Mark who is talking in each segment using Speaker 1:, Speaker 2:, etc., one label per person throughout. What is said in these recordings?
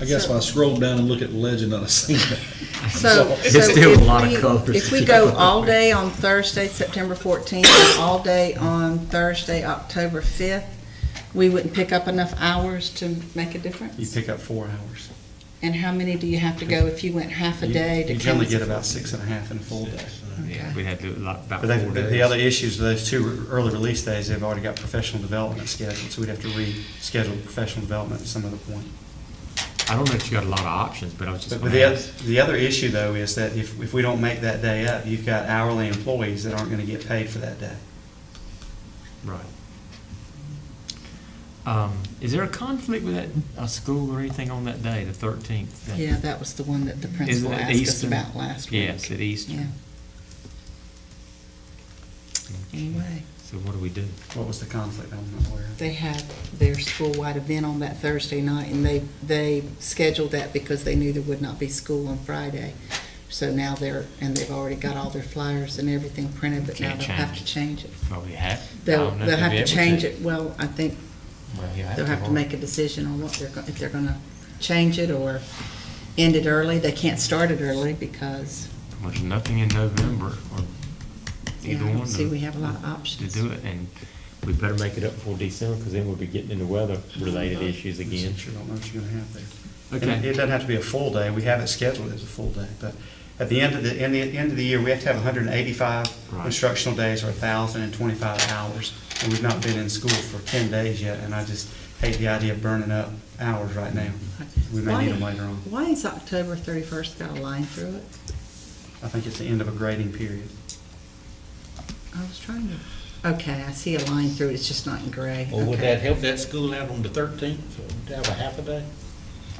Speaker 1: I guess if I scroll down and look at the legend, I'd have seen that.
Speaker 2: So.
Speaker 1: It's
Speaker 2: so
Speaker 3: still a
Speaker 2: if
Speaker 3: lot of
Speaker 2: we-
Speaker 3: colors
Speaker 2: If
Speaker 3: to
Speaker 2: we
Speaker 3: go
Speaker 2: go
Speaker 3: with
Speaker 2: all
Speaker 3: it.
Speaker 2: day on Thursday, September fourteenth, and all day on Thursday, October fifth, we wouldn't pick up enough hours to make a
Speaker 4: You
Speaker 2: difference?
Speaker 4: pick up four hours.
Speaker 2: And how many do you have to go if you went half a
Speaker 4: You-
Speaker 2: day to
Speaker 4: You generally get
Speaker 2: council?
Speaker 4: about six and a half in a full day.
Speaker 3: Yeah, we had to, do a lot- about four
Speaker 4: But they- but the
Speaker 3: days.
Speaker 4: other issues, those two early release days, they've already got professional development scheduled, so we'd have to reschedule professional development at some other point.
Speaker 3: I don't know if you got a lot of options, but I was just
Speaker 4: But but
Speaker 3: gonna
Speaker 4: the,
Speaker 3: ask.
Speaker 4: oth- the other issue, though, is that if, if we don't make that day up, you've got hourly employees that aren't going to get paid for that day.
Speaker 3: Right. Um, is there a conflict with that, a school or anything on that day, the thirteenth?
Speaker 2: Yeah, that was the one that the
Speaker 3: Isn't
Speaker 2: principal
Speaker 3: it
Speaker 2: asked us
Speaker 3: Easter?
Speaker 2: about last week.
Speaker 3: Yes, at Easter.
Speaker 2: Yeah, anyway.
Speaker 3: So what do we do?
Speaker 4: What was the conflict? I'm not aware. of.
Speaker 2: They have their school-wide event on that Thursday night, and they, they scheduled that because they knew there would not be school on Friday. So now they're, and they've already got all their flyers and everything printed, but now
Speaker 3: Can't
Speaker 2: they'll have
Speaker 3: change
Speaker 2: to
Speaker 3: it.
Speaker 2: change it.
Speaker 3: Probably have. um,
Speaker 2: They'll, they'll have to change it, well, I think they'll have to make a decision on what they're, go- if they're gonna change it or end it early. They can't start it early because,
Speaker 3: Well, There's nothing in November or
Speaker 2: you
Speaker 3: either
Speaker 2: know,
Speaker 3: one.
Speaker 2: see,
Speaker 3: to-
Speaker 2: we have a lot of
Speaker 3: To
Speaker 2: options.
Speaker 3: do it, and we better make it up before December, because then we'll be getting into weather-related issues again.
Speaker 4: Since You don't know what you're going to have there. And It
Speaker 3: Okay,
Speaker 4: doesn't have to be a full day. We have it scheduled as a full day, but at the end of the, end the, end of the year, we have to have hundred and eighty-five
Speaker 3: Right.
Speaker 4: instructional days or thousand and twenty-five hours. And we've not been in school for ten days yet, and I just hate the idea of burning up hours right now. We may need them
Speaker 2: Why-
Speaker 4: later on.
Speaker 2: Why is October thirty-first got a line through it?
Speaker 4: I think it's the end of a grading period.
Speaker 2: I was trying to, okay, I see a line through it, it's just not in gray.
Speaker 5: Well, would
Speaker 2: Okay.
Speaker 5: that help that school out on the thirteenth, to have a half a day?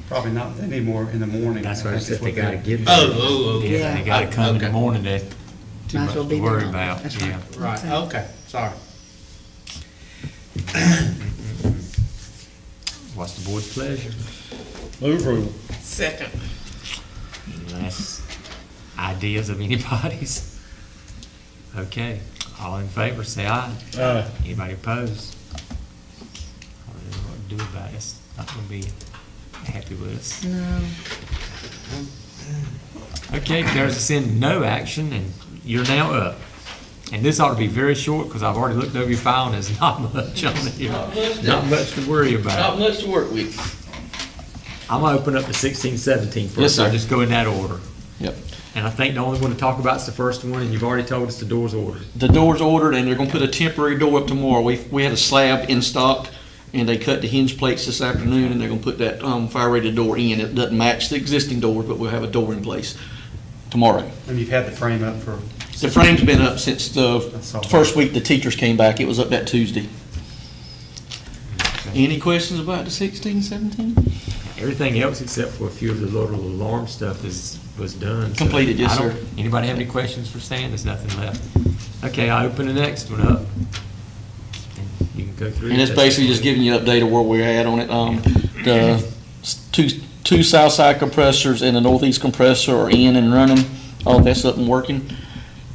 Speaker 4: Probably not, they need more in the morning.
Speaker 3: that's what I
Speaker 4: think is
Speaker 3: said, they
Speaker 4: what
Speaker 3: gotta get.
Speaker 5: Oh, oh, oh.
Speaker 3: Yeah, they
Speaker 2: Yeah.
Speaker 3: gotta come in the
Speaker 5: Okay.
Speaker 3: morning, they, too
Speaker 2: Might as
Speaker 3: much
Speaker 2: well be
Speaker 3: to worry
Speaker 2: there.
Speaker 3: about,
Speaker 2: That's Oh,
Speaker 3: yeah.
Speaker 5: Right,
Speaker 2: Okay.
Speaker 5: okay, sorry.
Speaker 3: What's the board's pleasure?
Speaker 1: Move approval.
Speaker 5: Second.
Speaker 3: Unless ideas of anybody's. Okay, all in favor, say aye.
Speaker 1: Aye.
Speaker 3: Anybody opposed? I don't know what to do about it. It's not gonna be happy with us.
Speaker 2: No,
Speaker 3: Okay, there's a sin, no action, and you're now up. And this ought to be very short, because I've already looked over your file, and there's not much on here.
Speaker 5: Not much.
Speaker 3: Not much to worry
Speaker 5: Not
Speaker 3: about.
Speaker 5: much to work with.
Speaker 3: I'm gonna open up the sixteen, seventeen first.
Speaker 5: Yes, sir.
Speaker 3: I'll Just go in that order.
Speaker 5: Yep.
Speaker 3: And I think the only one to talk about is the first one, and you've already told us the door's ordered.
Speaker 5: The door's ordered and they're gonna put a temporary door up tomorrow. We, we had a slab in stock and they cut the hinge plates this afternoon and they're gonna put that, um, fire rated door in. It doesn't match the existing door, but we'll have a door in place tomorrow.
Speaker 4: And you've had the frame up for,
Speaker 5: The frame's been up since the
Speaker 4: That's all.
Speaker 5: first week the teachers came back. It was up that Tuesday. Any questions about the sixteen, seventeen?
Speaker 3: Everything else except for a few of the little alarm stuff is, was done. so
Speaker 5: Completed, yes,
Speaker 3: I don't-
Speaker 5: sir.
Speaker 3: Anybody have any questions for Stan? There's nothing left. Okay, I open the next one up. And You can go through.
Speaker 5: And it's
Speaker 3: it.
Speaker 5: basically just giving you an update of where we're at on it. Um, the s- two, two south side compressors and the northeast compressor are in and running. All that's up and working.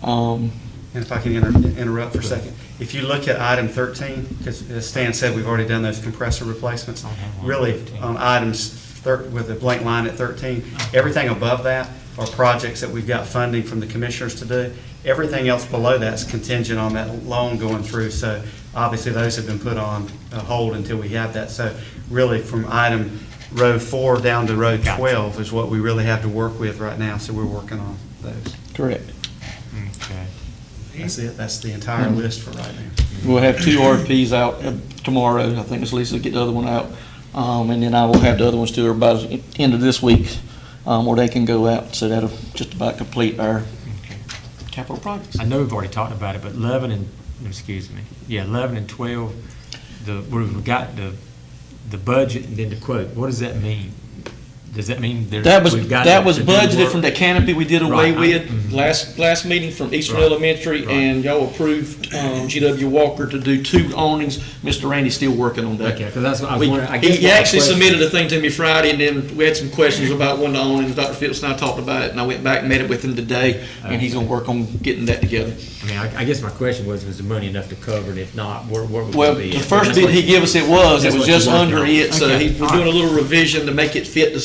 Speaker 5: Um,
Speaker 4: and if I can inter- interrupt for a second, if you look at item thirteen, because as Stan said, we've already done those compressor replacements.
Speaker 3: Okay.
Speaker 4: Really, on items thir- with a blank line at thirteen, everything above that are projects that we've got funding from the commissioners to do. Everything else below that's contingent on that loan going through, so obviously those have been put on uh, hold until we have that. So really, from item row four down to row
Speaker 3: Gotcha.
Speaker 4: twelve is what we really have to work with right now, so we're working on those.
Speaker 5: correct.
Speaker 3: Okay.
Speaker 4: That's it, that's the entire list for right now.
Speaker 5: We'll have two RFPs out uh, tomorrow. I think Ms. Lisa will get the other one out. Um, and then I will have the other ones to her by the end of this week, um, where they can go out. So that'll just about complete our
Speaker 3: Okay.
Speaker 5: capital projects.
Speaker 3: I know we've already talked about it, but eleven and, excuse me, yeah, eleven and twelve, the, we've got the, the budget and then the quote. What does that mean? Does that mean there?
Speaker 5: That was,
Speaker 3: we've got
Speaker 5: that was
Speaker 3: to do
Speaker 5: budgeted
Speaker 3: work?
Speaker 5: from the canopy we did away
Speaker 3: Right, I-
Speaker 5: with
Speaker 3: mhm.
Speaker 5: last, last meeting from Eastern
Speaker 3: Right,
Speaker 5: Elementary,
Speaker 3: right.
Speaker 5: and y'all approved, um, GW Walker to do two awnings. Mr. Randy's still working on that.
Speaker 3: Okay, 'cause that's what I was
Speaker 5: We-
Speaker 3: wondering, I
Speaker 5: he-
Speaker 3: guess
Speaker 5: He
Speaker 3: what my
Speaker 5: actually
Speaker 3: question-
Speaker 5: submitted a thing to me Friday, and then we had some questions about one of the awnings. Dr. Phillips and I talked about it, and I went back and met it with him today, and he's gonna work on getting that together.
Speaker 3: I mean, I, I guess my question was, was the money enough to cover it? If not, where, where would
Speaker 5: Well,
Speaker 3: it be?
Speaker 5: the first bid he gave us, it was, it
Speaker 3: that's
Speaker 5: was
Speaker 3: what you're
Speaker 5: just
Speaker 3: working
Speaker 5: under
Speaker 3: on.
Speaker 5: it, so
Speaker 3: Okay,
Speaker 5: he's, we're
Speaker 3: all right.
Speaker 5: doing a little revision to make it fit the